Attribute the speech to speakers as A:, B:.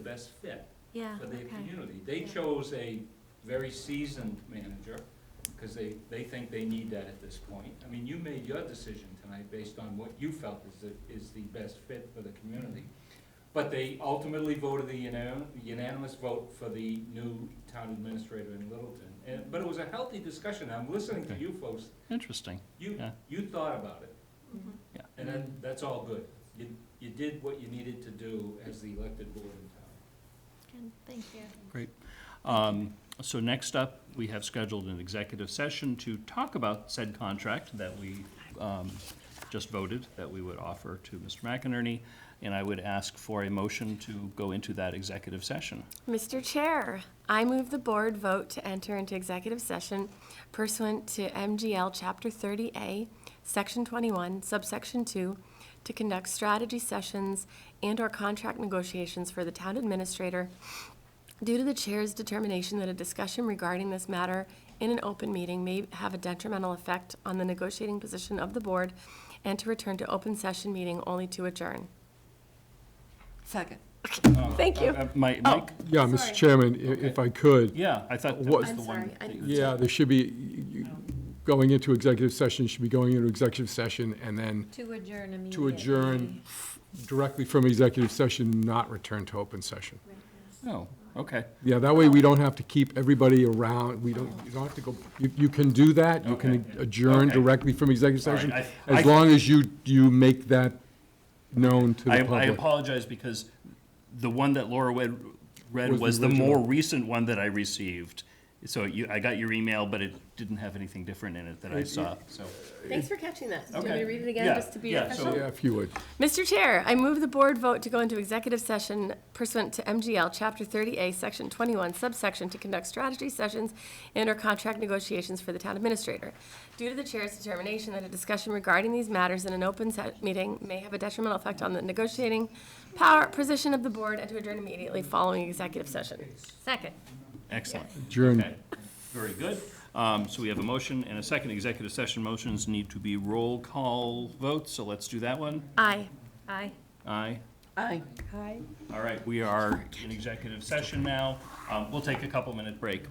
A: best fit
B: Yeah,
A: for their
B: okay.
A: community. They chose a very seasoned manager, because they, they think they need that at this point. I mean, you made your decision tonight based on what you felt is the, is the best fit for the community. But they ultimately voted the unan- unanimous vote for the new town administrator in Littleton. And, but it was a healthy discussion, I'm listening to you folks,
C: Interesting.
A: you,
C: Yeah.
A: you thought about it,
B: Mhm.
A: and that, that's all good. You, you did what you needed to do as the elected board in town.
B: Good, thank you.
C: Um, So next up, we have scheduled an executive session to talk about said contract that we um, just voted, that we would offer to Mr. McInerney, and I would ask for a motion to go into that executive session.
D: Mr. Chair, I move the board vote to enter into executive session pursuant to MGL Chapter 30A, Section 21, Subsection 2, to conduct strategy sessions and/or contract negotiations for the town administrator due to the chair's determination that a discussion regarding this matter in an open meeting may have a detrimental effect on the negotiating position of the board, and to return to open session meeting only to adjourn.
E: Second.
D: Thank you. Oh.
C: Uh, Mike, Mike,
F: Yeah, Mr. Chairman, i- if I could,
C: yeah, I thought that
F: What-
C: was the
D: I'm
C: one.
D: sorry, I-
C: that you-
F: yeah, there should be, you- you- going into executive session, should be going into executive session and then
B: To adjourn immediately.
F: to adjourn directly from executive session, not return to open session.
C: Oh, okay.
F: Yeah, that way we don't have to keep everybody around, we don't, you don't have to go, you, you can do that, you can
C: Okay.
F: adjourn
C: Okay.
F: directly from executive
C: All right,
F: session,
C: I- I-
F: as long as you, you make that known to
C: I,
F: the
C: I
F: public.
C: apologize because the one that Laura read, read
F: Was the
C: was the more
F: original.
C: recent one that I received. So you, I got your email, but it didn't have anything different in it that I saw, so.
D: Thanks for catching that. Do you want me
C: Okay.
D: to read it again,
C: Yeah,
D: just to be
C: yeah,
D: official?
C: so-
F: Yeah, if you would.
D: Mr. Chair, I move the board vote to go into executive session pursuant to MGL Chapter 30A, Section 21, subsection, to conduct strategy sessions and/or contract negotiations for the town administrator. Due to the chair's determination that a discussion regarding these matters in an open set meeting may have a detrimental effect on the negotiating power position of the board and to adjourn immediately following executive session. Second.
C: Excellent.
F: Adjourn.
C: Okay, very good. Um, So we have a motion and a second. Executive session motions need to be roll call votes, so let's do that one.
D: Aye.
B: Aye.
C: Aye.
E: Aye.
C: All right, we are in executive session now. Um, We'll take a couple-minute break.